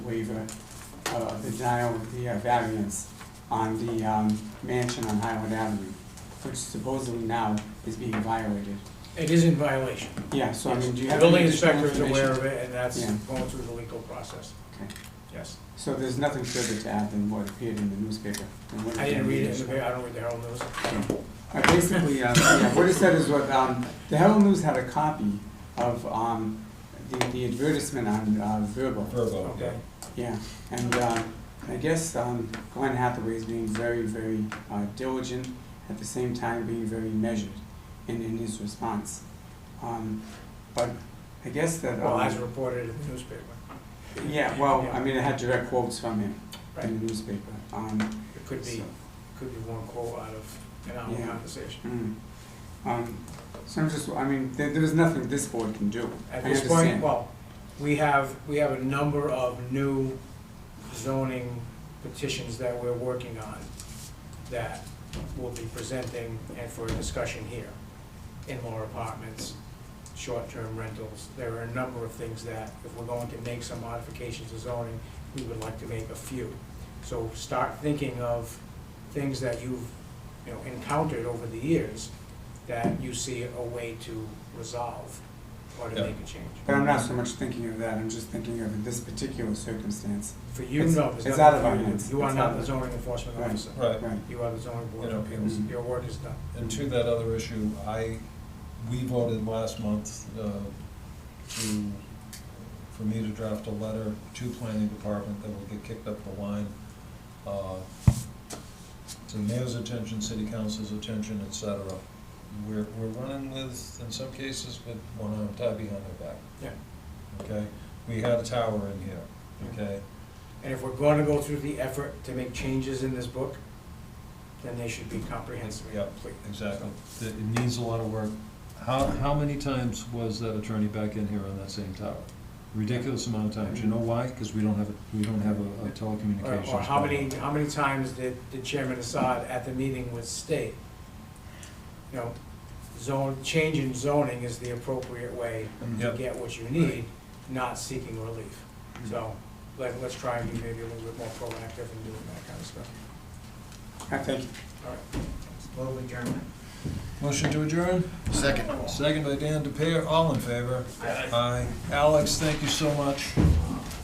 waiver of the denial of the uh, variance on the um, mansion on Highland Avenue, which supposedly now is being violated. It is in violation. Yeah, so I mean, do you The have building any inspector additional is aware information? of it, and that's Yeah. going through the legal process, Okay. yes. So there's nothing further to add than what appeared in the newspaper? and what I didn't read it in the, appeared pa- I don't read the Herald News. Uh, Basically, uh, yeah, what it said is what, um, the Herald News had a copy of, um, the, the advertisement on, uh, Verbo. Verbo, yeah. Okay. Yeah, and, uh, I guess, um, Glenn Hathaway is being very, very uh, diligent, at the same time being very measured in, in his response. Um, but I guess that, Well, as um, reported in the newspaper. yeah, well, Yeah. I mean, I had direct quotes from him in Right. the newspaper, um, It could be, so- could be one quote out of an Yeah. hour conversation. Mm. Um, so I'm just, I mean, there, there's nothing this board can do. At I this point, understand. well, we have, we have a number of new zoning petitions that we're working on that we'll be presenting and for discussion here. In-law apartments, short-term rentals, there are a number of things that if we're going to make some modifications to zoning, we would like to make a few. So start thinking of things that you've, you know, encountered over the years that you see a way to resolve or to Yeah. make a change. But I'm not so much thinking of that, I'm just thinking of this particular circumstance. For you, It's- no, it's there's out of nothing our for you. hands. You are It's out not of- the zoning enforcement Right. officer. Right, Right, You are the zoning board You of know, mm-hmm. appeals. mm. Your work is done. and to that other issue, I, we voted last month uh, to, for me to draft a letter to planning department that will get kicked up the line uh, to mayor's attention, city council's attention, et cetera. We're, we're running with, in some cases, with one arm tied behind our back. Yeah. Okay, we had a tower in here, okay? And if we're going to go through the effort to make changes in this book, then they should be comprehensive and Yeah. complete. Exactly. It- It needs a lot of work. How, how many times was that attorney back in here on that same tower? Ridiculous amount of times. You know why? Because we don't have, a- we don't have a a Or telecommunications. or how many, bylaw. how many times did did Chairman Assad at the meeting with state? You know, zone, change in zoning is the appropriate way to Yep. get what you need, not seeking relief. Mm-hmm. So let, let's try and be maybe a little bit more proactive in doing that kind of stuff. I think, All right. Move adjournment. Motion to adjourn? Second. Second by Dan DePere. All in favor? Aye. Alex, thank you so much.